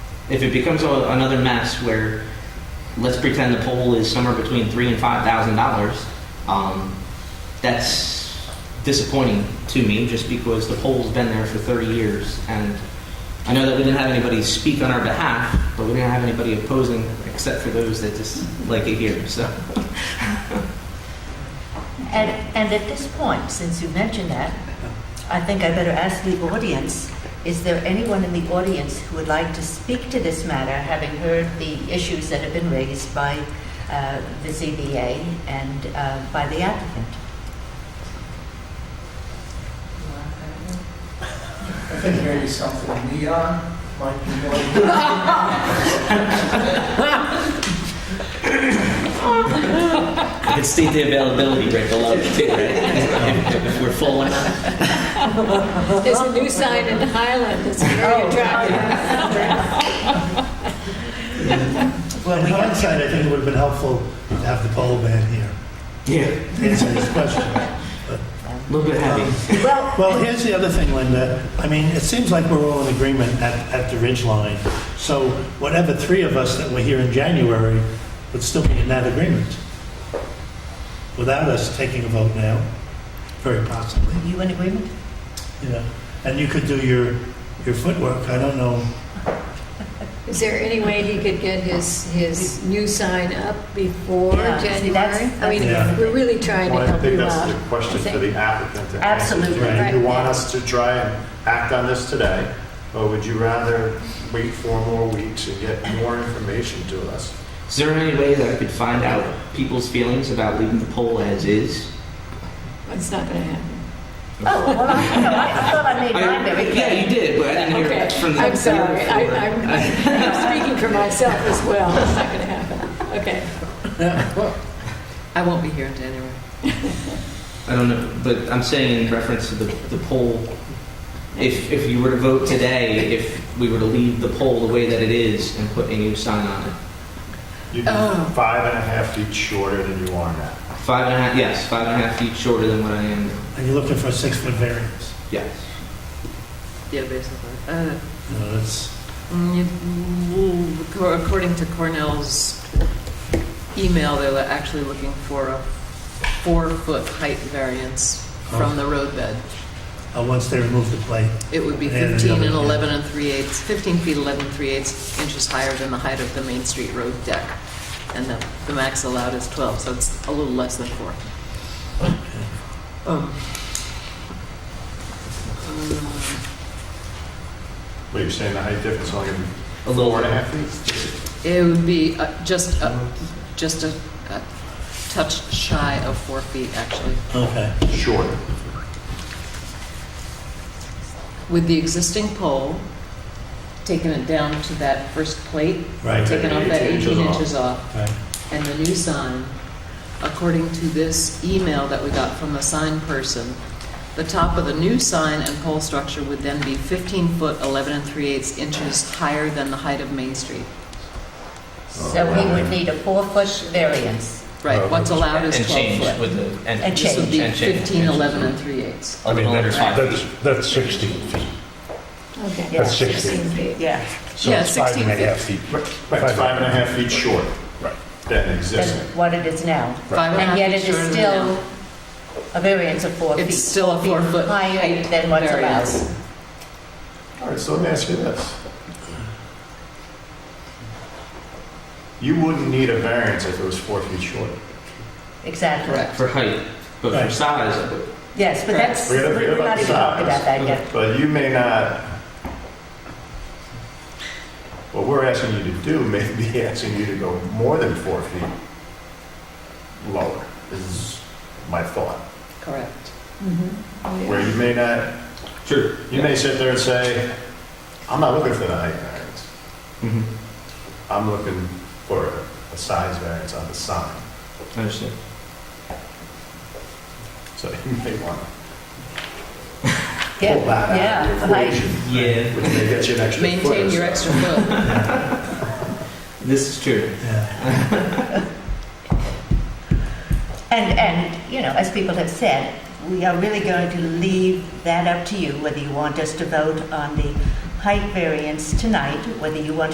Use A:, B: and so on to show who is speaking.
A: if it becomes a, another mess where let's pretend the poll is somewhere between three and five thousand dollars, um, that's disappointing to me just because the poll's been there for 30 years and I know that we didn't have anybody speak on our behalf, but we didn't have anybody opposing except for those that just like it here. So
B: And, and at this point, since you mentioned that, I think I better ask the audience, is there anyone in the audience who would like to speak to this matter, having heard the issues that have been raised by uh, the ZBA and uh, by the applicant?
C: I think maybe something neon might be more.
A: I could state the availability rate below too, right? if, if we're full or not.
D: There's a new sign in Highland that's very
C: Oh,
D: attractive.
E: In hindsight, I think it would have been helpful to have the poll man here
A: Yeah,
E: to answer this question.
A: a little bit heavy.
E: Well, here's the other thing, Linda. I mean, it seems like we're all in agreement at, at the ridge line. So whatever three of us that were here in January would still be in that agreement without us taking a vote now, very possibly,
B: You in agreement?
E: you know. And you could do your, your footwork. I don't know.
D: Is there any way he could get his, his new sign up before
B: Yeah, see, that's-
D: January? I mean,
E: Yeah.
D: we're really trying
F: Well,
D: to
F: I
D: help
F: think
D: you
F: that's
D: out.
F: the question for the applicant to answer.
B: Absolutely.
D: Right.
F: Do you want us to try and act on this today, or would you rather wait four more weeks and get more information to us?
A: Is there any way that I could find out people's feelings about leaving the poll as is?
D: It's not gonna happen.
B: Oh, well, I, no, I I thought I made mine very
A: I,
B: clear.
A: yeah, you did, but I didn't hear
D: Okay,
A: it from the.
D: I'm sorry, I,
A: before.
D: I'm, I'm speaking for myself as well, it's not gonna happen, okay.
G: I won't be here in January.
A: I don't know, but I'm saying in reference to the, the poll, if, if you were to vote today, if we were to leave the poll the way that it is and put a new sign on it,
F: You'd be
G: Oh.
F: five and a half feet shorter than you are now.
A: five and a half, yes, five and a half feet shorter than what I am,
E: And you're looking for a six-foot variance.
A: yes.
G: Yeah, basically. Uh,
E: You know, that's,
G: mm, you- mm, co- According to Cornell's email, they're li- actually looking for a four-foot height variance
E: Oh.
G: from the roadbed.
E: uh, once they remove the plate.
G: It would be
E: Yeah, the
G: 15 and
E: other-
G: 11 and 3/8, 15 feet 11 3/8 inches higher than the height of the Main Street road deck. And the, the max allowed is 12, so it's a little less than four. Um, um,
F: What, you're saying the height difference is only gonna
A: A
F: be
A: little,
F: four and a half feet?
G: It would be uh, just, a- just a a touch shy of four feet, actually.
E: Okay.
F: Shorter.
G: With the existing pole, taking it down to that first plate,
E: Right.
G: taking off that
F: 18 inches
G: 18
F: off.
G: inches off,
E: Right.
G: and the new sign, according to this email that we got from the sign person, the top of the new sign and pole structure would then be 15 foot 11 and 3 eighths inches higher than the height of Main Street.
B: So he would need a four-foot variance.
G: Right,
F: Oh,
G: what's allowed is
A: and
G: 12
A: change
G: foot.
A: with the,
B: And
A: and.
G: This would be
A: and change.
G: 15, 11 and 3 eighths.
A: A little over five feet.
H: That's, that's 16 feet.
D: Okay.
B: Yeah.
H: That's 16
D: feet.
B: Yeah.
H: So
G: Yeah,
H: it's five
G: 16
H: and a half feet.
F: Right, it's five and a half feet short
H: Right.
F: than
B: Than
F: existing.
B: what it is now.
G: Five and a
B: And
G: half
B: yet
G: feet
B: it is
G: shorter than
B: still
G: now.
B: a variance of four feet.
G: It's still a four-foot
B: Higher
G: height
B: than what's allowed.
G: variance.
F: All right, so let me ask you this. You wouldn't need a variance if it was four feet shorter.
B: Exactly.
G: Correct.
A: For height, but for
E: Right.
A: size,
B: Yes, but that's,
F: Forget about-
B: we're
F: forget about
B: not
F: the
B: even talking
F: size.
B: about that yet.
F: But you may not, what we're asking you to do may be asking you to go more than four feet lower, is my thought.
G: Correct.
D: Mm-hmm. Oh,
F: Where you may not,
A: sure.
F: you may sit there and say, I'm not looking for the height variance.
A: Mhm.
F: I'm looking for a size variance on the sign.
A: Understood.
F: So you may want to
B: Yeah,
F: pull that out
B: yeah,
F: of your
B: like-
F: equation,
A: Yeah,
F: which may get you an extra foot. or
G: Maintain
F: so.
G: your extra foot.
A: this is true.
E: Yeah.
B: And, and, you know, as people have said, we are really going to leave that up to you, whether you want us to vote on the height variance tonight, whether you want